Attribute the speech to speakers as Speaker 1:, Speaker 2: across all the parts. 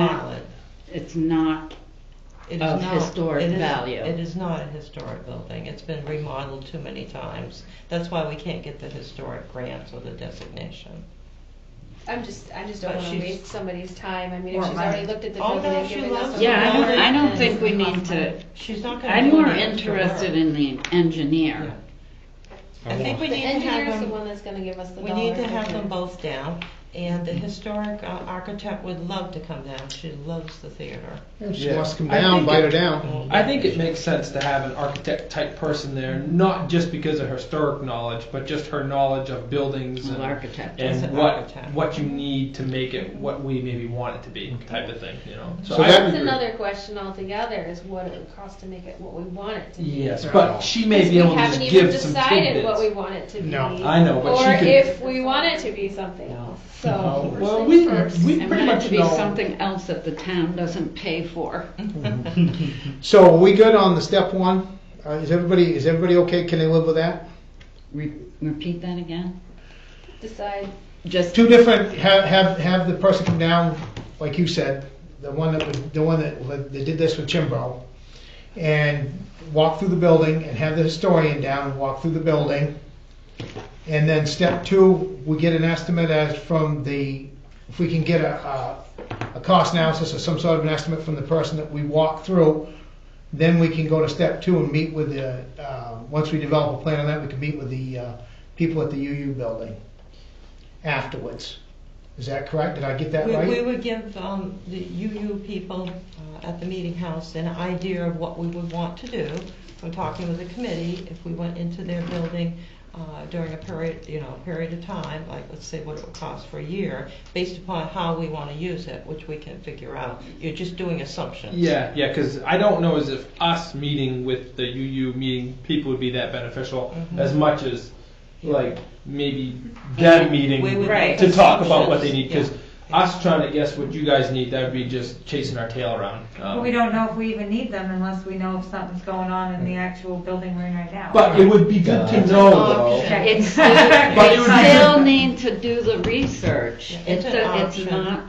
Speaker 1: valid.
Speaker 2: It's not,
Speaker 1: It is
Speaker 2: Uh-huh. Of
Speaker 1: not-
Speaker 2: historic
Speaker 1: it is-
Speaker 2: value.
Speaker 1: It is not a historic building. It's been remodeled too many times. That's why we can't get the historic grants or the designation.
Speaker 3: I'm just, I just don't
Speaker 1: But
Speaker 3: wanna
Speaker 1: she's-
Speaker 3: waste somebody's time, I mean,
Speaker 4: Or
Speaker 3: if she's already
Speaker 4: money.
Speaker 3: looked at the
Speaker 1: Oh,
Speaker 3: building
Speaker 1: no,
Speaker 3: and
Speaker 1: she
Speaker 3: given
Speaker 1: loves
Speaker 3: us a.
Speaker 1: it.
Speaker 2: yeah, I
Speaker 3: number,
Speaker 2: don't, I don't
Speaker 3: then-
Speaker 2: think we need to,
Speaker 1: She's not gonna.
Speaker 2: I'm
Speaker 1: do
Speaker 2: more
Speaker 1: the extra
Speaker 2: interested
Speaker 1: work.
Speaker 2: in the engineer.
Speaker 1: I think we
Speaker 3: The
Speaker 1: need to have
Speaker 3: engineer's the
Speaker 1: them,
Speaker 3: one that's gonna give us the
Speaker 1: we
Speaker 3: dollar.
Speaker 1: need to have them
Speaker 3: figure.
Speaker 1: both down. And the historic uh, architect would love to come down. She loves the theater.
Speaker 5: Yeah, She
Speaker 6: Yeah.
Speaker 5: wants to come
Speaker 6: I
Speaker 5: down,
Speaker 6: think
Speaker 5: bite her
Speaker 6: it-
Speaker 5: down.
Speaker 6: I think it makes sense to have an architect type person there, not just because of her historic knowledge, but just her knowledge of buildings
Speaker 2: Well,
Speaker 6: and,
Speaker 2: architect.
Speaker 1: As an
Speaker 6: and what
Speaker 1: architect.
Speaker 6: what you need to make it what we maybe want it to be type of thing, you know.
Speaker 5: So
Speaker 6: I
Speaker 5: that-
Speaker 3: That's
Speaker 5: agree.
Speaker 3: another question altogether, is what it would cost to make it what we want it to be.
Speaker 6: yes, but she may be
Speaker 3: We
Speaker 6: able to just
Speaker 3: haven't even
Speaker 6: give some
Speaker 3: decided what we
Speaker 6: tidbits.
Speaker 3: want it to be.
Speaker 5: No.
Speaker 6: I know, but she
Speaker 3: Or
Speaker 6: could-
Speaker 3: if we want it to be something else, so.
Speaker 6: No.
Speaker 3: first
Speaker 6: Well,
Speaker 3: things
Speaker 6: we-
Speaker 3: first.
Speaker 6: we-
Speaker 2: I
Speaker 6: pretty
Speaker 2: want it
Speaker 6: much
Speaker 2: to be
Speaker 6: know-
Speaker 2: something else that the town doesn't pay for.
Speaker 5: So are we good on the step one? Uh, is everybody, is everybody okay? Can they live with that?
Speaker 2: Re- Repeat that again?
Speaker 3: Decide,
Speaker 2: Just,
Speaker 5: Two different, have, have, have the person come down, like you said, the one that, was- the one that, that did this with Chimbro. And walk through the building and have the historian down and walk through the building. And then step two, we get an estimate as from the, if we can get a, a, a cost analysis or some sort of an estimate from the person that we walk through, then we can go to step two and meet with the, uh, once we develop a plan on that, we can meet with the, uh, people at the UU building afterwards. Is that correct? Did I get that
Speaker 1: We,
Speaker 5: right?
Speaker 1: we would give, um, the UU people, uh, at the meeting house an idea of what we would want to do from talking with the committee if we went into their building, uh, during a period, you know, period of time, like let's say what it would cost for a year, based upon how we wanna use it, which we can figure out. You're just doing assumptions.
Speaker 6: Yeah, yeah, because I don't know as if us meeting with the UU meeting people would be that beneficial
Speaker 1: Mhm.
Speaker 6: as much as like maybe that meeting
Speaker 1: We would
Speaker 2: Right.
Speaker 1: make
Speaker 6: to talk about what they need
Speaker 1: assumptions.
Speaker 6: because us trying to guess what you guys need that would be just chasing our tail around. Um,
Speaker 4: But we don't know if we even need them unless we know if something's going on in the actual building we're in right now.
Speaker 6: But it would be good to know though.
Speaker 1: Option.
Speaker 4: Okay.
Speaker 2: it's, they
Speaker 6: it would be-
Speaker 2: still need to do the research.
Speaker 1: Yeah,
Speaker 2: It's,
Speaker 1: it's an
Speaker 2: a- it's
Speaker 1: option.
Speaker 2: not,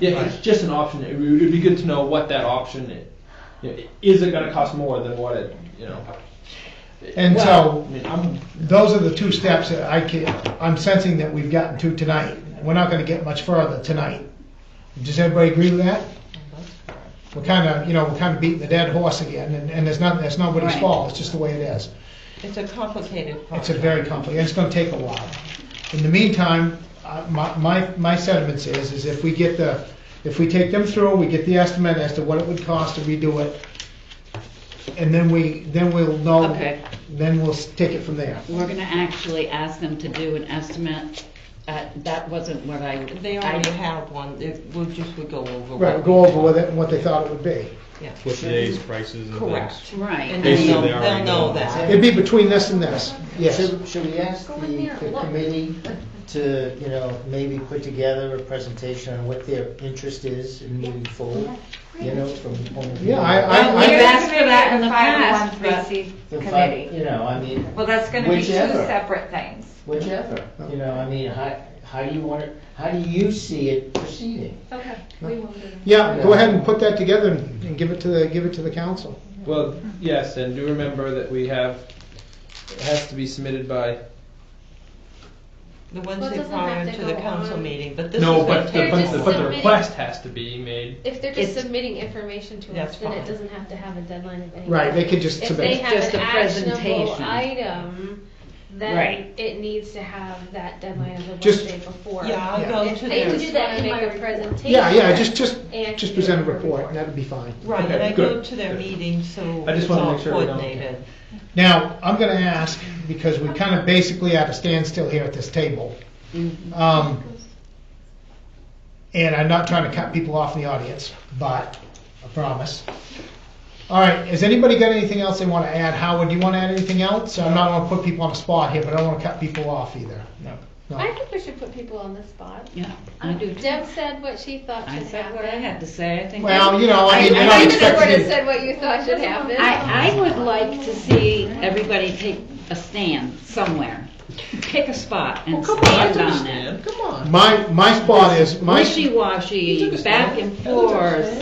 Speaker 6: Yeah, it's just an option. It would it would be good to know what that option is. You know, Is it gonna cost more than what it, you know?
Speaker 5: And so-
Speaker 6: Well, I mean, I'm,
Speaker 5: Those are the two steps that I can, I'm sensing that we've gotten to tonight. We're not gonna get much further tonight. Does everybody agree with that? We're kinda, you know, we're kinda beating the dead horse again, and, and it's not, that's nobody's
Speaker 2: Right.
Speaker 5: fault, it's just the way it is.
Speaker 1: It's a complicated
Speaker 5: It's
Speaker 1: project.
Speaker 5: a very complicated, it's gonna take a while. In the meantime, uh, my, my, my sentiments is, is if we get the, if we take them through, we get the estimate as to what it would cost to redo it, and then we, then we'll know,
Speaker 2: okay.
Speaker 5: then we'll s- take it from there.
Speaker 2: We're gonna actually ask them to do an estimate. Uh, that wasn't what I,
Speaker 1: They
Speaker 2: I
Speaker 1: already have one, It- we'll just, we go over. what
Speaker 5: Right, we'll go
Speaker 1: we-
Speaker 5: over with it and what they thought it would be.
Speaker 1: Yeah.
Speaker 7: with today's prices and
Speaker 1: Correct.
Speaker 7: things.
Speaker 2: Right.
Speaker 1: And
Speaker 2: I
Speaker 7: Basically,
Speaker 1: they'll,
Speaker 2: mean,
Speaker 7: they already
Speaker 1: they'll know
Speaker 7: know.
Speaker 1: that.
Speaker 5: It'd be between this and this, yes.
Speaker 8: Should, should we ask the,
Speaker 3: Go in there and
Speaker 8: the
Speaker 3: look.
Speaker 8: committee to, you know, maybe put together a presentation on what their interest is in moving forward? You know, from the point of view.
Speaker 5: Yeah, I,
Speaker 2: Well,
Speaker 5: I,
Speaker 2: we've
Speaker 5: I,
Speaker 2: yeah. asked for that in the past,
Speaker 4: Five oh one three C
Speaker 8: the fi-
Speaker 4: committee.
Speaker 8: You know, I mean,
Speaker 4: Well, that's gonna be two
Speaker 8: Whichever.
Speaker 4: separate things.
Speaker 8: whichever, you know, I mean, how, how do you want it, how do you see it proceeding?
Speaker 3: okay, we will do that.
Speaker 5: yeah, go ahead and put that together and and give it to the, give it to the council.
Speaker 6: well, yes, and do remember that we have, it has to be submitted by.
Speaker 1: The
Speaker 3: Well, it
Speaker 1: Wednesday
Speaker 3: doesn't
Speaker 1: prior
Speaker 3: have to
Speaker 1: to the
Speaker 3: go
Speaker 1: council
Speaker 3: on.
Speaker 1: meeting, but this is.
Speaker 6: No,
Speaker 1: gonna
Speaker 6: but
Speaker 1: take
Speaker 6: the,
Speaker 3: They're
Speaker 6: but
Speaker 3: just
Speaker 6: the, but the
Speaker 3: submitting-
Speaker 6: request has to be made.
Speaker 3: If they're just
Speaker 2: It's-
Speaker 3: submitting information to
Speaker 1: That's
Speaker 3: us, then
Speaker 1: fine.
Speaker 3: it doesn't have to have a deadline of any.
Speaker 5: Right,
Speaker 3: kind.
Speaker 5: they could just
Speaker 3: If they
Speaker 5: submit.
Speaker 3: have
Speaker 2: Just
Speaker 3: an
Speaker 2: a
Speaker 3: actionable
Speaker 2: presentation.
Speaker 3: item, then
Speaker 2: Right.
Speaker 3: it needs to have that deadline of the
Speaker 5: Just-
Speaker 3: Wednesday before.
Speaker 1: Yeah, I'll
Speaker 5: Yeah.
Speaker 1: go to
Speaker 3: I
Speaker 1: their,
Speaker 3: would do that in my presentation.
Speaker 5: Yeah, yeah, just, just,
Speaker 3: and
Speaker 5: just
Speaker 3: do
Speaker 5: present a
Speaker 3: your
Speaker 5: report, and that'd be fine.
Speaker 1: right,
Speaker 6: Okay,
Speaker 1: and I go
Speaker 6: good.
Speaker 1: to their
Speaker 6: Good.
Speaker 1: meeting, so
Speaker 6: I just
Speaker 1: it's
Speaker 6: wanna
Speaker 1: all
Speaker 6: make sure we don't-
Speaker 1: coordinated.
Speaker 5: Now, I'm gonna ask, because we're kind of basically at a standstill here at this table.
Speaker 2: Mm-hmm.
Speaker 5: Um, And I'm not trying to cut people off in the audience, but, I promise. All right, has anybody got anything else they want to add? Howard, do you want to add anything else? I'm not going to put people on the spot here, but I don't want to cut people off either.
Speaker 6: No.
Speaker 3: I think we should put people on the spot.
Speaker 2: Yeah, I do. too.
Speaker 3: Deb said what she thought
Speaker 2: I
Speaker 3: should
Speaker 2: said what I
Speaker 3: happen.
Speaker 2: had to say, I think.
Speaker 5: Well, you know, I mean,
Speaker 2: I-
Speaker 5: you're
Speaker 2: I
Speaker 5: not
Speaker 2: think
Speaker 3: You sort of
Speaker 5: expected.
Speaker 3: said what you thought should happen.
Speaker 2: I, I would like to see everybody take a stand somewhere. Pick a spot and
Speaker 6: Come on, I
Speaker 2: stand
Speaker 6: took a
Speaker 2: on it.
Speaker 6: stand. Come on.
Speaker 5: My, my spot is, my.
Speaker 2: Wishy-washy, back and forth.